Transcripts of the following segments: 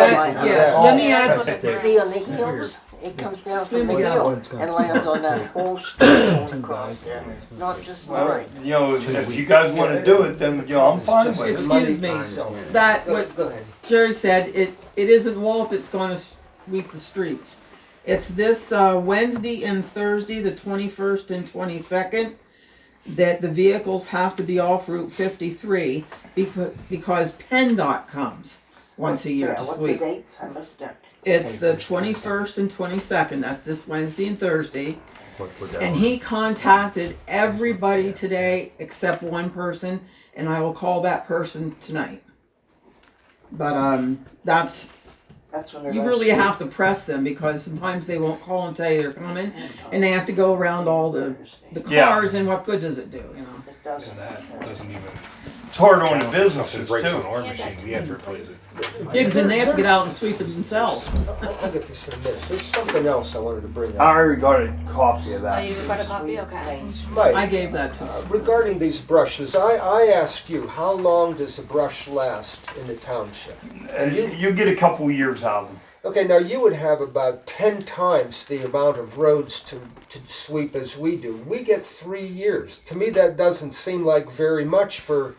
That, yeah, let me ask what You that, See on the hills, it comes down from the Slim hill down. and lands on that whole street going across there, not just Well, mine. you know, if if you guys wanna do it, then, you know, I'm fine with it. excuse me, that, what Jerry said, it, it isn't Walt that's gonna sweep the streets. It's this, uh, Wednesday and Thursday, the twenty-first and twenty-second, that the vehicles have to be off Route fifty-three becau- because PennDOT comes once a year Yeah, to what's the sweep. dates? I missed it. It's the twenty-first and twenty-second, that's this Wednesday and Thursday. And he contacted everybody today except one person, and I will call that person tonight. But um, that's That's when they're. you gonna really shoot. have to press them because sometimes they won't call and tell you they're coming, Oh, and they have to go around all the the Yeah. cars, and what good does it do? You know, It doesn't. That doesn't even. It's hard on the If businesses it breaks on too. our machine, we have to replace it. because then they have to get out and sweep it themselves. I'll get this in a minute. There's something else I wanted to bring I Ah. up. already got a copy of Oh, that. you've got a copy, okay. Things. I Mike, gave that to uh, them. regarding these brushes, I, I asked you, how long does a brush last in the township? And Uh, you, you get a couple years out of them. Okay, now you would have about ten times the amount of roads to, to sweep as we do. We get three years. To me, that doesn't seem like very much for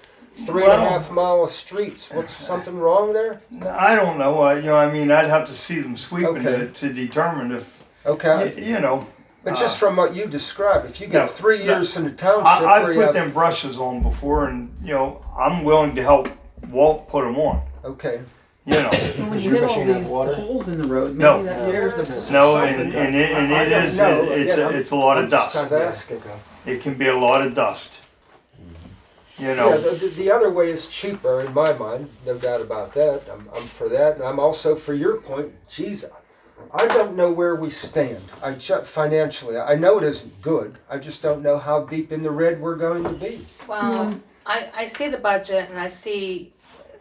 three and a half Well- mile of streets. What's something wrong there? I don't know, I, you know, I mean, I'd have to see them sweeping Okay. to, to determine if, y- Okay, you know. but just from what you described, if you get Uh, no, three no. years in the township, I, where you I've put have- them brushes on before and, you know, I'm willing to help Walt put them on, okay. you know. When Does you hit your all machine have these water? holes in the road, maybe No. that tears the. No, and, and it, and I it don't is, know, it- it's, yeah, a- I'm- it's a lot I'm of just dust. kind of asking. It can be a lot of dust. You Yeah, know, the, the other way is cheaper in my mind, no doubt about that. I'm, I'm for that, and I'm also for your point. Geez, I don't know where we stand. I ju- financially, I know it isn't good. I just don't know how deep in the red we're going to be. Well, I, I see the budget and I see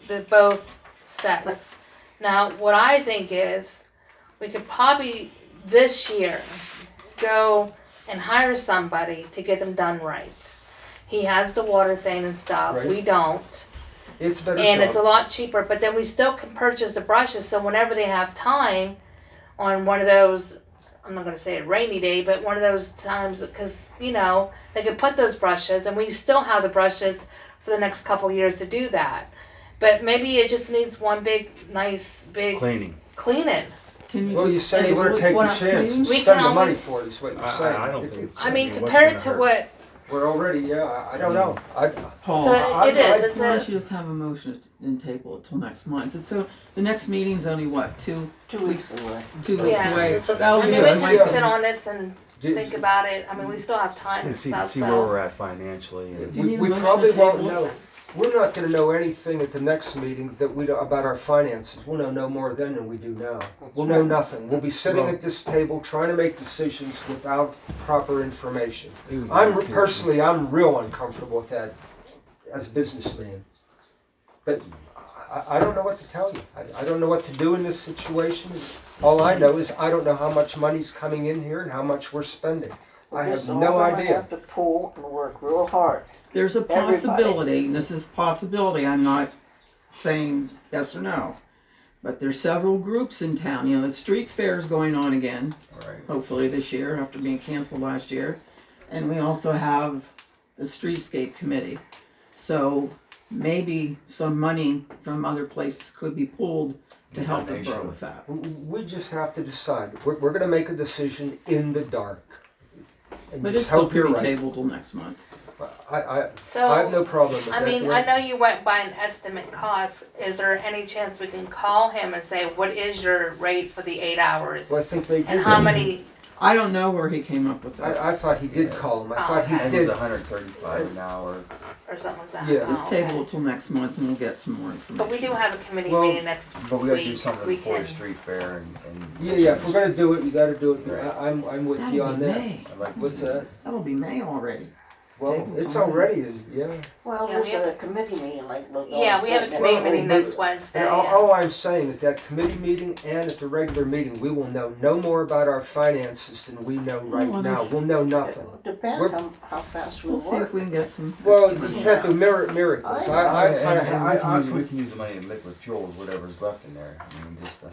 the both sets. Now, what I think is, we could probably this year go and hire somebody to get them done right. He has the water thing and stuff, we Right. don't. It's a better And it's a job. lot cheaper, but then we still can purchase the brushes, so whenever they have time on one of those, I'm not gonna say a rainy day, but one of those times, cause you know, they could put those brushes and we still have the brushes for the next couple years to do that. But maybe it just needs one big, nice, big Cleaning. cleaning. Can you well, you just say you table want it to take till the next chance meeting? and We spend can the money always- for it. Is what you're I- I- saying. I don't It's- think it's- I mean, what's compare it gonna to hurt? what, we're already. Yeah, I, I Hmm. don't know. I, Paul. so I- it I- is, Why don't it's a, you just have a motion and table it till next month? And so the next meeting's only what, two, Two weeks away. two weeks Yeah. away? I That'll mean, give we Yeah, it that's- can Wednesday. sit on this and do- think about it, I mean, we still have time And and see, stuff, see so. where we're at financially. and- you We, need a we motion probably to won't table it? know, we're not gonna know anything at the next meeting that we, don't- about our finances, we'll know no more then than we do now. We'll know nothing, we'll be sitting at this table trying to make decisions without proper information. I'm, re- personally, I'm real uncomfortable with that as a businessman. But I, I don't know what to tell you, I, I don't know what to do in this situation. All I know is I don't know how much money's coming in here and how much we're spending. I have Just all no of them idea. Have to pull and work real hard. There's a Everybody. possibility, and this is possibility, I'm not saying yes or no. But there's several groups in town, you know, the street fair's going on again, hopefully this year, after being canceled last year. And we also have the streetscape committee. So maybe some money from other places could be pulled to help the borough with that. We just have to decide. We're, we're gonna make a decision in the dark. And But just it's still hope you're pretty right. tabled till next month. I, I, I have no So, problem with that. I mean, Glenn. I know you went by an estimate cost, is there any chance we can call him and say, what is your rate for the eight hours? Well, I think they did. And how many, I don't know where he came up with that. I, I thought he did call him. I Oh, thought he okay. And it was did. hundred and thirty-five an hour. or something like that? Yeah. Oh, Just okay. table it till next month and we'll get some more information. But we do have a committee Well, meeting next week. But we gotta do something We before the can- street fair and, and. Yeah, yeah, if we're gonna do it, you gotta do it. Right. I, I'm, I'm with you That'll on be that. May. I'd like to What's see- that? That'll be May already. Well, Table it's time. already, in- yeah. Well, Yeah, we there's have a committee meeting like. like Yeah, I we have a said, that's committee what meeting we do. next Wednesday. And all, yeah. all I'm saying, at that committee meeting and at the regular meeting, we will know no more about our finances than we know right Well, now. there's- We'll know It nothing. will Depend We're- on how fast we We'll see if work. we can get some. Well, you can't do mir- miracles. I, I, And- and I, I, we can use- I We can use the money in liquid fuels, whatever's left in there, I mean, just, uh,